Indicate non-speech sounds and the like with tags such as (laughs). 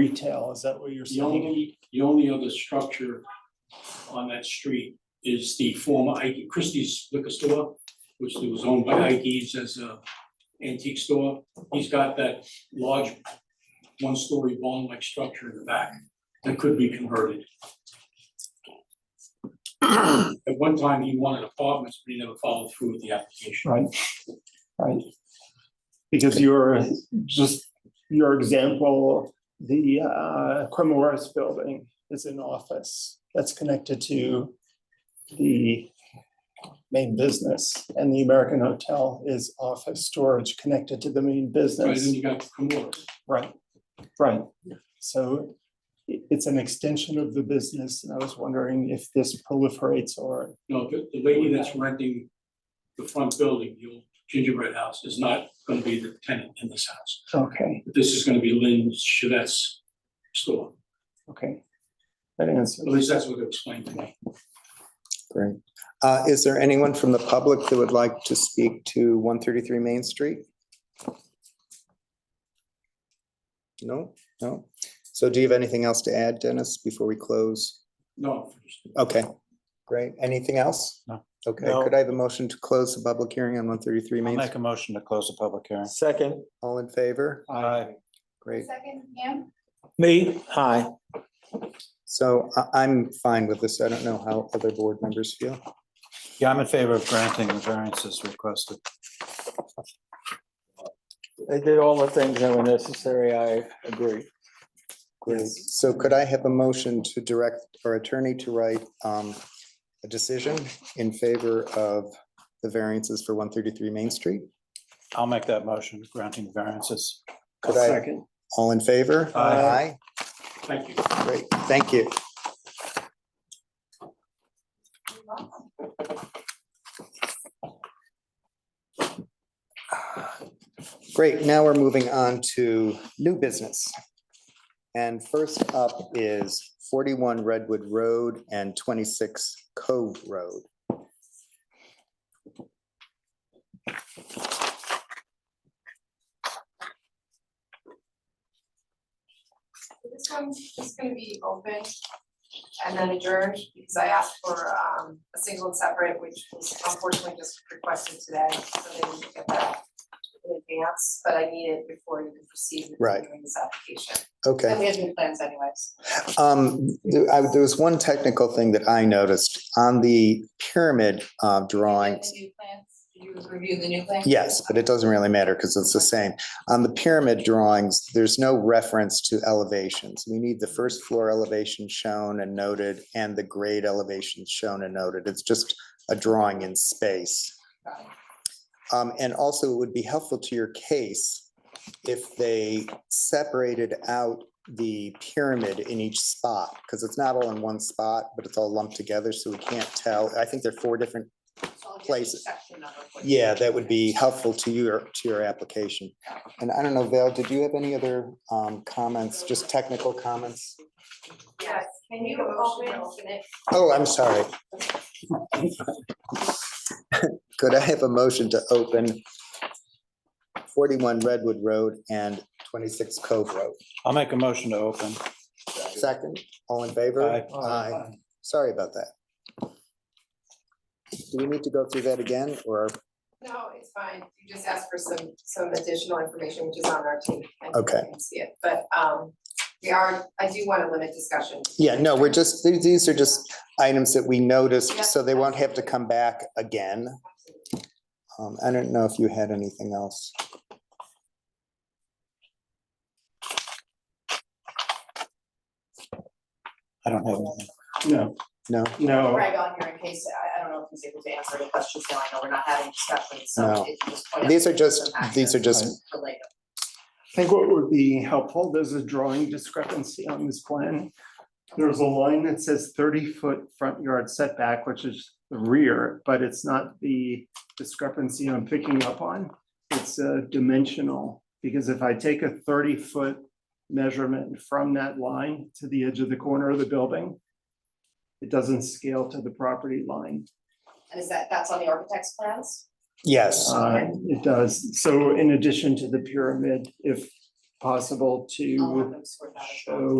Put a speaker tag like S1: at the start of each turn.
S1: retail, is that what you're
S2: The
S1: saying?
S2: only, the only other structure on that street is the former Ike, Christie's liquor store, which was owned by Ike's as a antique store. He's got that large one-story barn-like structure in the back that could be converted. At one time, he wanted apartments, but he never followed through with the application.
S1: Right, right. Because you're just, your example, the uh, Cremores building is an office that's connected to the main business and the American Hotel is office storage connected to the main
S2: Right, then
S1: business.
S2: you got Cremora.
S1: Right, right. So i- it's an extension of the business and I was wondering if this proliferates or
S2: No, the, the lady that's renting the front building, the old gingerbread house, is not gonna be the tenant in this house.
S1: Okay,
S2: This is gonna be Lynn Shadet's store.
S1: okay. That answers.
S2: At least that's what they explained to me.
S3: Great. Uh, Is there anyone from the public that would like to speak to 133 Main Street? No, no. So do you have anything else to add, Dennis, before we close?
S2: No,
S3: Okay, great. Anything else?
S4: No.
S3: Okay,
S5: No.
S3: could I have a motion to close the public hearing on 133
S4: I'll
S3: Main?
S4: make
S3: Street?
S4: a motion to close the public hearing.
S5: Second,
S3: All in favor?
S4: Aye.
S3: Great.
S6: Second, Ham?
S5: me, hi.
S3: So I- I'm fine with this. I don't know how other board members feel.
S4: Yeah, I'm in favor of granting the variances requested.
S5: They did all the things that were necessary, I agree.
S3: Great. So could I have a motion to direct our attorney to write um, a decision in favor of the variances for 133 Main Street?
S4: I'll make that motion, granting variances.
S3: Could I- All in favor?
S4: Aye.
S2: thank you.
S3: Aye. Great, thank you. Great, now we're moving on to new business. And first up is 41 Redwood Road and 26 Cove Road.
S6: This one's just gonna be open and then adjourned, because I asked for um a single and separate, which was unfortunately just requested today, so they didn't get that in advance, but I need it before you can proceed
S3: Right.
S6: with doing this application.
S3: Okay.
S6: And we have new plans anyways.
S3: Um, there I- there was one technical thing that I noticed on the pyramid uh, drawings.
S6: The new plans, did you review the new plans?
S3: Yes, but it doesn't really matter because it's the same. On the pyramid drawings, there's no reference to elevations. We need the first floor elevation shown and noted and the grade elevation shown and noted. It's just a drawing in space. Um, and also it would be helpful to your case if they separated out the pyramid in each spot, because it's not all in one spot, but it's all lumped together, so we can't tell. I think there are four different,
S6: So I'll give you
S3: Places.
S6: section number for you.
S3: yeah, that would be helpful to your, to your application. And I don't know, Val, did you have any other, um, comments, just technical comments?
S6: Yes, can you open open it?
S3: Oh, I'm sorry. (laughs) Could I have a motion to open forty-one Redwood Road and twenty-six Cove Road?
S4: I'll make a motion to open.
S3: Second, all in favor?
S4: Aye.
S1: Uh,
S3: Aye. Sorry about that. Do we need to go through that again, or,
S6: No, it's fine. You just asked for some, some additional information, which is on our team. I think
S3: Okay.
S6: you can See it, but, um, we are, I do want to limit discussion.
S3: yeah, no, we're just, these- these are just items that we noticed,
S6: Yeah.
S3: so they won't have to come back again. Um, I don't know if you had anything else.
S4: I don't have anything.
S1: No,
S3: No,
S1: no,
S6: Greg on here in case, I, I don't know if he's able to answer any questions now. I know we're not having discussions,
S3: No.
S6: so it's just. point out
S3: these are just,
S6: some
S3: these are
S6: actions
S3: just,
S6: for later.
S1: I think what would be helpful, there's a drawing discrepancy on this plan. There's a line that says thirty foot front yard setback, which is the rear, but it's not the discrepancy I'm picking up on. It's uh, dimensional, because if I take a thirty foot measurement from that line to the edge of the corner of the building, it doesn't scale to the property line.
S6: And is that, that's on the architect's plans?
S3: yes,
S1: Uh, It does. So in addition to the pyramid, if
S6: possible
S1: I'll have
S6: to Oh,
S1: them sort that as well.
S6: show